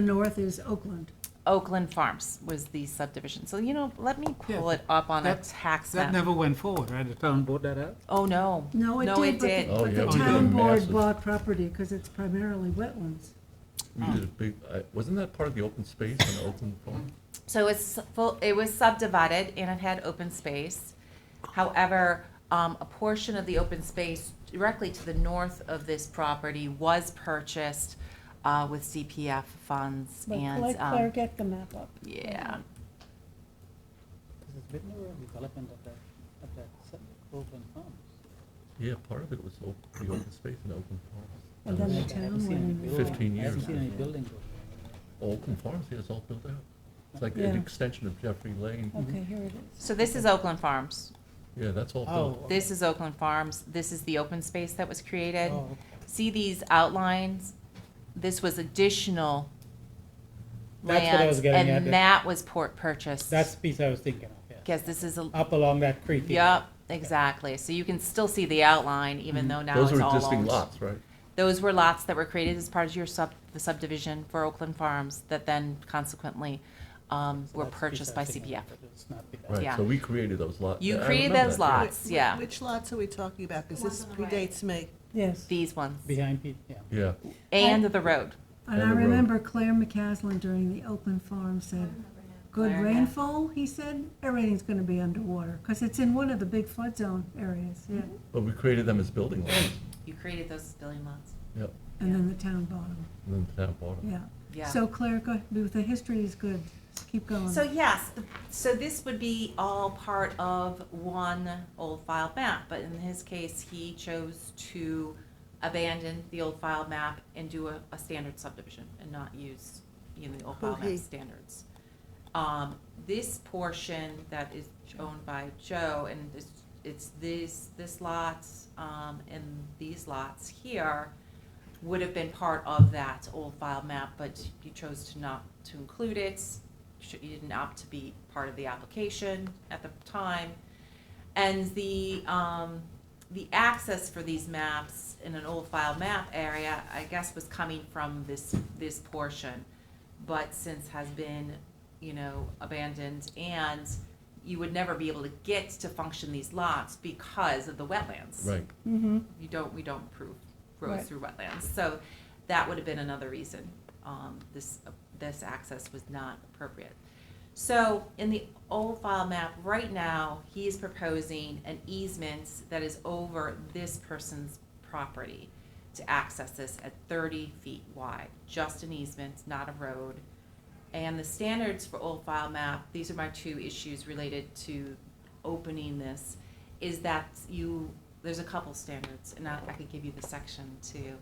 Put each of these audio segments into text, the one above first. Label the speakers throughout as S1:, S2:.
S1: north is Oakland.
S2: Oakland Farms was the subdivision. So, you know, let me pull
S3: Yeah,
S2: it up on a
S3: that-
S2: tax
S3: That
S2: map.
S3: never went forward, right? The town brought that up?
S2: Oh, no.
S1: No, it did. but the-
S2: did.
S4: Oh,
S1: But
S4: yeah,
S1: the
S4: we
S3: did a
S1: town board
S4: massive-
S1: bought property because it's primarily wetlands.
S4: We did a
S2: Oh.
S4: big, I- wasn't that part of the open space on Oakland Farm?
S2: So it's full, it was subdivided and it had open space. However, um, a portion of the open space directly to the north of this property was purchased, uh, with CPF funds
S5: But
S2: and,
S5: Claire, Claire,
S2: um,
S5: get the map up.
S2: yeah.
S6: This is bit more of development of that, of that sub- Oakland Farms.
S4: Yeah, part of it was o- the open space in Oakland
S1: And then
S4: Farm.
S1: the
S6: I haven't
S1: town
S6: seen any
S1: went in.
S6: building-
S4: 15
S6: I haven't
S4: years.
S6: seen any building over there.
S4: Oakland Farms, yeah, it's all built out. It's like an
S1: Yeah.
S4: extension of Jeffrey Lane.
S5: Okay, here it is.
S2: So this is Oakland Farms.
S4: Yeah, that's all
S6: Oh.
S4: built.
S2: This is Oakland Farms. This is the open space that was created.
S6: Oh,
S2: See these outlines? This was additional
S6: That's what I was
S2: land,
S6: getting at.
S2: and that was port purchase.
S6: That's the piece I was thinking of, yeah.
S2: Because this is a,
S6: Up along that creek. yeah.
S2: yep, exactly. So you can still see the outline, even though now
S4: Mm-hmm. Those
S2: it's
S4: are
S2: all
S4: existing
S2: owned.
S4: lots, right?
S2: Those were lots that were created as part of your sub, the subdivision for Oakland Farms that then consequently, um,
S6: So
S2: were
S6: that's the piece
S2: purchased
S6: I
S2: by
S6: was thinking
S2: CPF.
S6: of, but it's not big.
S4: Right,
S2: Yeah.
S4: so we created those lots.
S2: You
S4: I
S2: created
S4: remember
S2: those
S4: that, yeah.
S2: lots. Lots, yeah.
S7: Which lots are we talking about? Because
S2: The
S7: this
S2: ones on the right.
S7: predates me.
S1: Yes.
S2: These ones,
S6: Behind, Pete, yeah.
S4: Yeah,
S2: and the road.
S1: And I
S4: And the road.
S1: remember Claire McCaslin during the Oakland Farm said, good
S2: Claire, yeah.
S1: rainfall, he said, everything's gonna be underwater, because it's in one of the big flood zone areas, yeah.
S2: Mm-hmm.
S4: but we created them as building lots,
S2: You created those building lots.
S4: Yep.
S1: And then the town bottom,
S4: and then the town bought them.
S1: yeah.
S2: Yeah.
S1: So Claire, go, ahead. the history is good, keep going.
S2: So yes, the- so this would be all part of one old file map, but in his case, he chose to abandon the old file map and do a, a standard subdivision and not use, you know, the old file
S7: Okay.
S2: map standards. Um, this portion that is owned by Joe and it's, it's this, this lot, um, and these lots here would have been part of that old file map, but you chose to not to include it. Sh- You didn't opt to be part of the application at the time. And the, um, the access for these maps in an old file map area, I guess, was coming from this, this portion, but since has been, you know, abandoned, and you would never be able to get to function these lots because of the wetlands
S4: Right,
S5: Mm-hmm.
S2: you don't, we don't approve roads
S5: Right.
S2: through wetlands. So that would have been another reason, um, this, this access was not appropriate. So in the old file map, right now, he is proposing an easement that is over this person's property to access this at thirty feet wide, just an easement, not a road. And the standards for old file map, these are my two issues related to opening this, is that you, there's a couple standards, and I, I could give you the section too.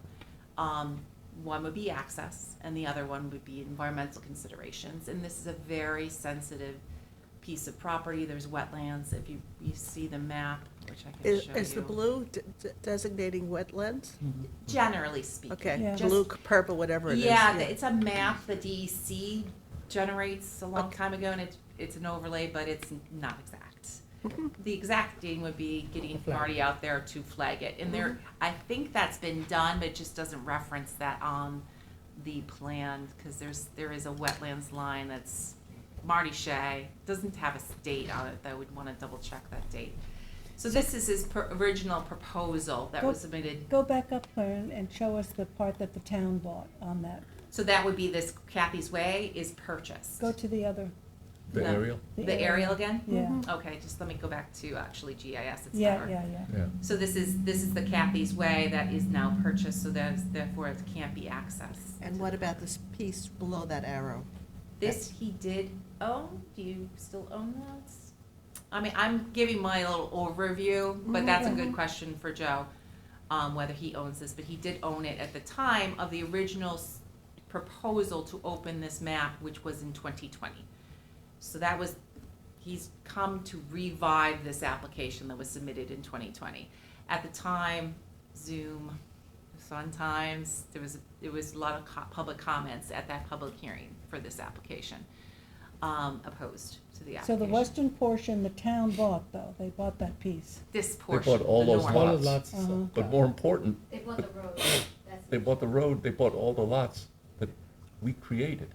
S2: Um, one would be access, and the other one would be environmental considerations, and this is a very sensitive piece of property, there's wetlands, if you, you see the map, which I can
S7: Is,
S2: show you.
S7: is the blue de- de- designating wetlands?
S2: Mm-hmm.
S6: Mhm.
S2: Generally speaking.
S7: Okay,
S5: Yeah.
S7: blue, purple, whatever it is.
S2: Yeah, th- it's a map the DEC generates a long
S7: Okay.
S2: time ago, and it's, it's an overlay, but it's not exact. The exact thing would be getting
S6: Flag.
S2: Marty out there to flag it, and there, I think that's been done, but it just doesn't reference that on the plan, because there's, there is a wetlands line that's Marty Shea, doesn't have a s- date on it, though, we'd want to double check that date. So this is his per- original proposal that was submitted
S5: Go back up, Claire, and, and show us the part that the town bought on that.
S2: So that would be this Kathy's Way is purchased.
S5: Go to the other,
S4: the
S2: No.
S4: aerial,
S2: The Mm-hmm. aerial again?
S5: Yeah,
S2: Okay, just let me go back to actually GIS, it's
S5: yeah,
S2: better.
S5: yeah, yeah.
S4: yeah.
S2: So this is, this is the Kathy's Way that is now purchased, so there's, therefore it can't be accessed.
S7: And what about this piece below that arrow?
S2: This he did own, do you still own that? I mean, I'm giving my little overview, but that's a good question for Joe, um, whether he owns this, but he did own it at the time of the original s- proposal to open this map, which was in twenty twenty. So that was, he's come to revive this application that was submitted in twenty twenty. At the time, Zoom, Sun Times, there was, there was a lot of co- public comments at that public hearing for this application, um, opposed to the
S5: So
S2: application.
S5: the western portion, the town bought though, they bought that piece.
S2: This
S4: bought
S2: portion, the
S4: all those
S2: north.
S6: All
S4: lots.
S6: those lots.
S5: Uh-huh.
S6: uh,
S4: But more important,
S8: They bought the road. That's
S4: they bought the road, they bought all the lots that we created.